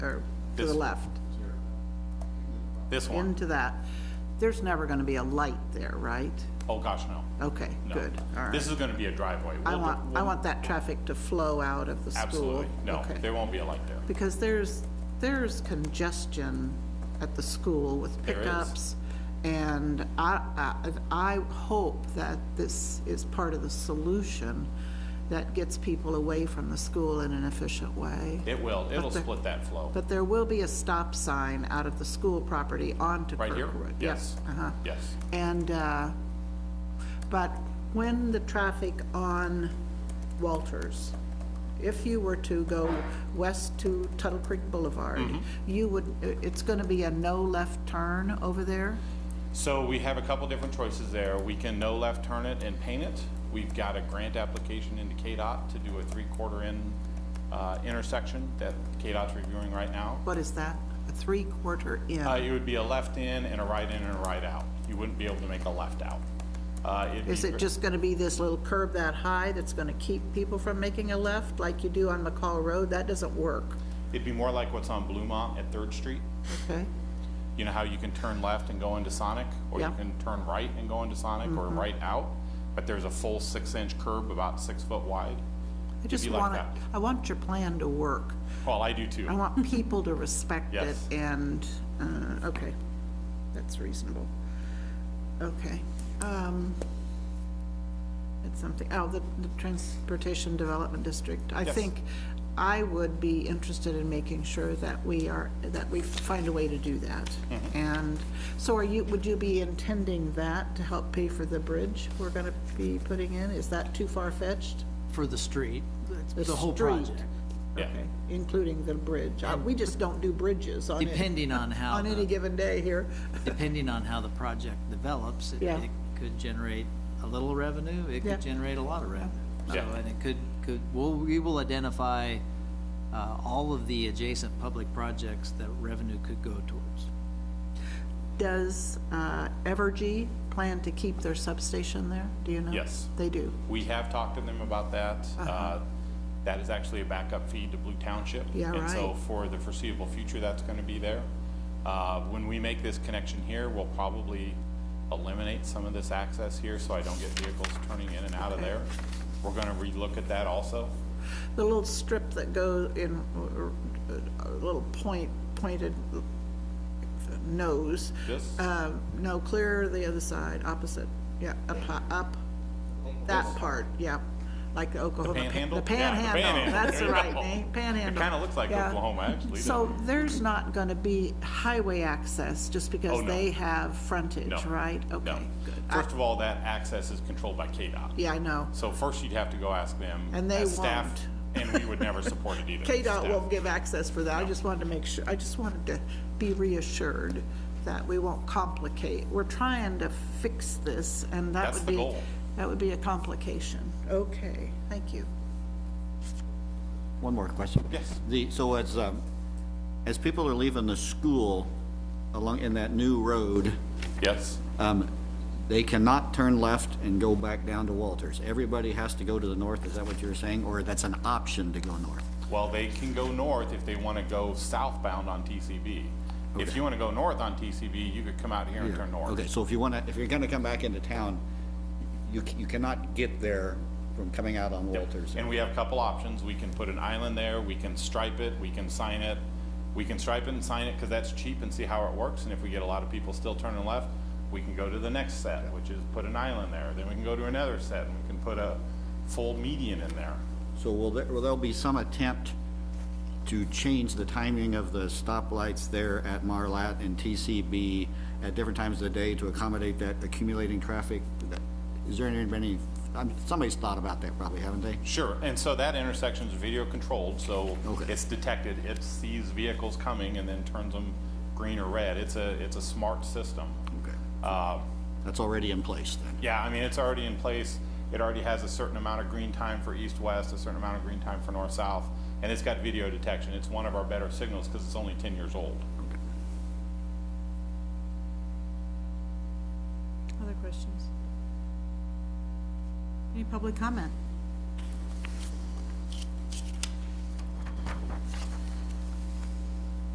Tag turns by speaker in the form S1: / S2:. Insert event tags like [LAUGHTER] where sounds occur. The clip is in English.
S1: or to the
S2: This-
S1: left,
S2: This one?
S1: into that, there's never gonna be a light there, right?
S2: Oh, gosh, no.
S1: Okay,
S2: No.
S1: good, all right.
S2: This is gonna be a driveway.
S1: I
S2: We'll-
S1: want, I
S2: we'll-
S1: want that traffic to flow out of the school.
S2: Absolutely. No,
S1: Okay.
S2: there won't be a light there.
S1: Because there's, there's congestion at the school with
S2: There is.
S1: pickups. And I, I, I hope that this is part of the solution that gets people away from the school in an efficient way.
S2: It will. It'll
S1: there-
S2: split that flow.
S1: But there will be a stop sign out of the school property onto
S2: Right here?
S1: Kirkwood. Yep,
S2: Yes.
S1: Uh-huh.
S2: Yes.
S1: And, uh, but when the traffic on Walters, if you were to go west to Tuttle Creek Boulevard,
S2: Mm-hmm.
S1: you would, i- it's gonna be a no left turn over there?
S2: So we have a couple different choices there. We can no left turn it and paint it. We've got a grant application into KDOT to do a three-quarter in uh, intersection that KDOT's reviewing right now.
S1: What is that? A three-quarter
S2: Uh,
S1: in?
S2: It would be a left in and a right in and a right out. You wouldn't be able to make a left out. Uh, it'd
S1: Is
S2: be
S1: it
S2: ver-
S1: just gonna be this little curb that high that's gonna keep people from making a left like you do on McCall Road? That doesn't work,
S2: It'd be more like what's on Bluemont at Third Street.
S1: okay?
S2: You know how you can turn left and go into Sonic? Or you
S1: Yeah. Mm-hmm.
S2: can turn right and go into Sonic, or right out? But there's a full six-inch curb about six foot wide?
S1: I
S2: It'd
S1: just
S2: be like
S1: want,
S2: that.
S1: I want your plan to work.
S2: Well, I do too.
S1: I
S2: [LAUGHS]
S1: want people to respect it,
S2: Yes.
S1: and, uh, okay, that's reasonable. Okay. um, It's something, oh, the the Transportation Development District. I
S2: Yes.
S1: think I would be interested in making sure that we are, that we find a way to do that.
S2: Mm-hmm.
S1: And so are you, would you be intending that to help pay for the bridge we're going to be putting in? Is that too far-fetched?
S3: for the street,
S1: The
S3: the whole
S1: street.
S3: project.
S2: Yeah.
S1: Okay, including the bridge. Uh, We just don't do bridges on any-
S3: Depending on how
S1: On any
S3: the-
S1: given day here.
S3: Depending on how the project develops, it
S1: Yeah.
S3: it could generate a little revenue, it
S1: Yeah.
S3: could generate a lot of revenue. So,
S2: Yeah.
S3: and it could, could, well, we will identify uh, all of the adjacent public projects that revenue could go towards.
S1: Does uh, Evergy plan to keep their substation there? Do you know?
S2: Yes.
S1: They do.
S2: We have talked to them about that.
S1: Uh-huh.
S2: Uh, That is actually a backup feed to Blue Township.
S1: Yeah,
S2: And so
S1: right.
S2: for the foreseeable future, that's going to be there. Uh, When we make this connection here, we'll probably eliminate some of this access here so I don't get vehicles turning in and out of
S1: Okay.
S2: there. We're going to relook at that also.
S1: The little strip that goes in, or, uh, a little point, pointed nose.
S2: This?
S1: Uh, No, clear the other side, opposite, yeah, up, hi- up, that part, yeah, like Oklahoma. pan-
S2: panhandle?
S1: The
S2: Yeah, the
S1: panhandle,
S2: panhandle.
S1: that's the
S2: There you
S1: right
S2: go.
S1: name, panhandle.
S2: It kinda looks like
S1: yeah.
S2: Oklahoma, actually, doesn't
S1: So there's not gonna be highway access just because
S2: Oh, no.
S1: they have frontage,
S2: No.
S1: right?
S2: No.
S1: Okay, good. I-
S2: First of all, that access is controlled by KDOT.
S1: Yeah, I know.
S2: So first you'd have to go ask them.
S1: And they
S2: as staff,
S1: won't.
S2: And we would never support it either.
S1: [LAUGHS]
S2: as
S1: KDOT
S2: staff.
S1: won't give access for that, I just wanted to make sure, I just wanted to be reassured that we won't complicate. We're trying to fix this, and that
S2: That's
S1: would
S2: the
S1: be.
S2: goal.
S1: That would be a complication. Okay, thank you.
S4: One more question.
S2: Yes.
S4: The, so as, um, as people are leaving the school along, in that new road,
S2: Yes,
S4: um, they cannot turn left and go back down to Walters. Everybody has to go to the north, is that what you were saying? Or that's an option to go north?
S2: well, they can go north if they want to go southbound on TCB. If you want to go north on TCB, you could come out here and turn north.
S4: Okay, so if you wanna, if you're gonna come back into town, you, c- you cannot get there from coming out on Walters.
S2: And we have a couple options. We can put an island there, we can stripe it, we can sign it. We can stripe it and sign it because that's cheap and see how it works. And if we get a lot of people still turning left, we can go to the next set, which is put an island there. Then we can go to another set and we can put a full median in there.
S4: So will there, will there be some attempt to change the timing of the stoplights there at Marlat and TCB at different times of the day to accommodate that accumulating traffic? Is there any, any, um, somebody's thought about that probably, haven't they?
S2: Sure, and so that intersection is video controlled, so
S4: Okay.
S2: it's detected, it sees vehicles coming and then turns them green or red. It's a, it's a smart system.
S4: Okay.
S2: Uh,
S4: That's already in place then?
S2: Yeah, I mean, it's already in place, it already has a certain amount of green time for east-west, a certain amount of green time for north-south, and it's got video detection, it's one of our better signals because it's only ten years old.
S5: Other questions? Any public comment?